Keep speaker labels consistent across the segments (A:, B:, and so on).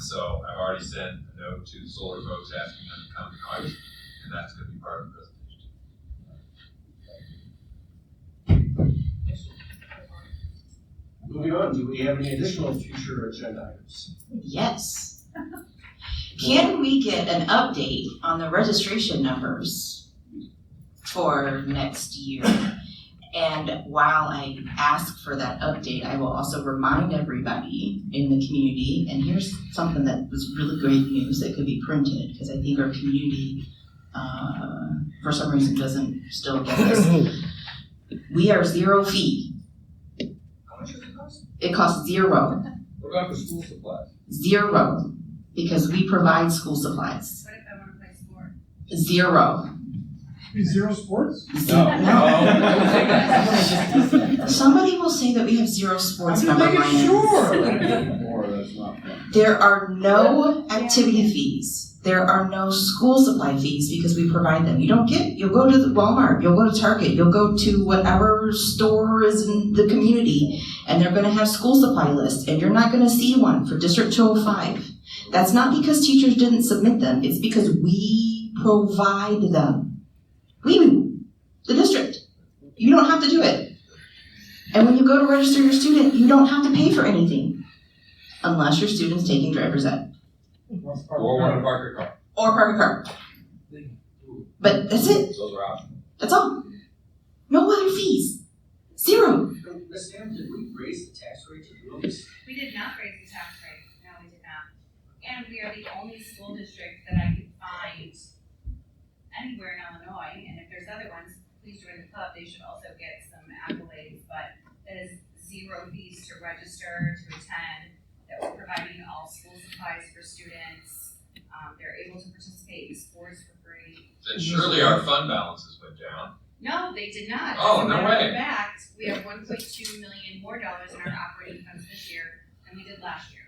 A: So I've already sent a note to the solar folks asking them to come to August, and that's gonna be part of the presentation.
B: Moving on, do we have any additional future agenda items?
C: Yes. Can we get an update on the registration numbers for next year? And while I ask for that update, I will also remind everybody in the community, and here's something that was really great news that could be printed, because I think our community, uh, for some reason doesn't still get this. We are zero fee.
A: How much does it cost?
C: It costs zero.
A: What about for school supplies?
C: Zero, because we provide school supplies.
D: What if I wanna play sport?
C: Zero.
E: Zero sports?
A: No,
C: no. Somebody will say that we have zero sports member lineups.
E: sure. that's not fun.
C: There are no activity fees. There are no school supply fees because we provide them. You don't get, you'll go to the Walmart, you'll go to Target, you'll go to whatever store is in the community, and they're gonna have school supply lists, and you're not gonna see one for District two oh five. That's not because teachers didn't submit them, it's because we provide them. We, the district. You don't have to do it. And when you go to register your student, you don't have to pay for anything unless your student's taking driver's ed.
A: Or one Parker car,
C: or park a car. But that's it.
A: those are options.
C: That's all. No other fees. Zero.
B: Ms. Hamm, did we raise the tax rate to do this?
D: We did not raise the tax rate, no, we did not. And we are the only school district that I could find anywhere in Illinois, and if there's other ones, please join the club, they should also get some accolades, but that is zero fees to register, to attend, that we're providing all school supplies for students. Um, they're able to participate in sports for free,
A: Then surely our fund balances went down.
D: No, they did not.
A: Oh,
D: As a
A: no
D: matter of
A: way.
D: fact, we have one point two million more dollars in our operating funds this year than we did last year.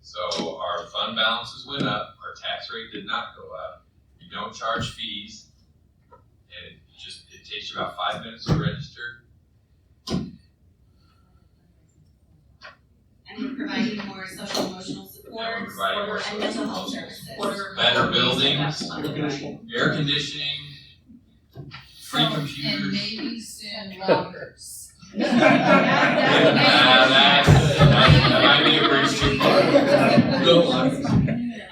A: So our fund balances went up, our tax rate did not go up, we don't charge fees. And it just, it takes you about five minutes to register.
D: And we're providing more social emotional
A: And we're
D: support
A: providing more
D: and mental health
A: social
D: services.
A: Better buildings,
B: Conditional.
A: air conditioning, free
F: Oh, And
A: computers.
F: maybe soon lockers.
A: Ah, that's- that might be a bridge too far. Go on.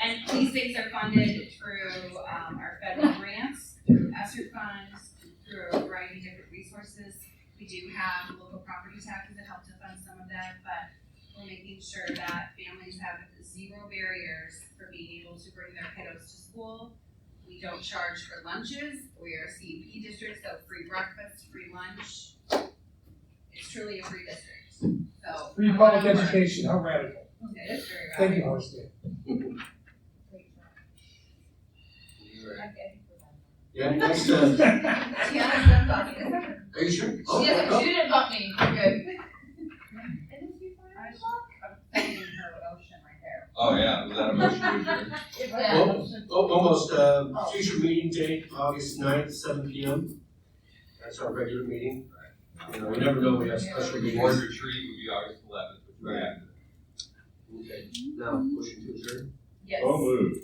D: And these things are funded through, um, our federal grants, through ESSER funds, through a variety of different resources. We do have local property taxes that help to fund some of that, but we're making sure that families have zero barriers for being able to bring their kiddos to school. We don't charge for lunches, we are a CEP district, so free breakfast, free lunch. It's truly a free district, so.
E: Free public education, how radical.
D: It is very valuable.
E: Thank you, Horace Day.
B: Yeah, next, uh, are you sure? Oh,
F: She doesn't,
B: oh.
F: she didn't bump me, We're good.
A: Oh, yeah, was that a motion to adjourn?
F: Yeah.
B: Oh, almost, uh, future meeting date, August ninth, seven P M. That's our regular meeting. You know, we never know, we have special
A: The board
B: meetings.
A: retreat would be August eleventh, which we're at.
B: Okay, now, motion to adjourn.
F: Yes.
A: Oh,
B: Oh,
E: moved.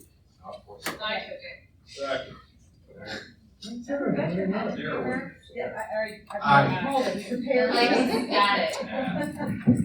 A: Of course.
F: I took it.
A: Zero.
D: Yeah, I, I- I-
B: Aye.
F: Like, got it.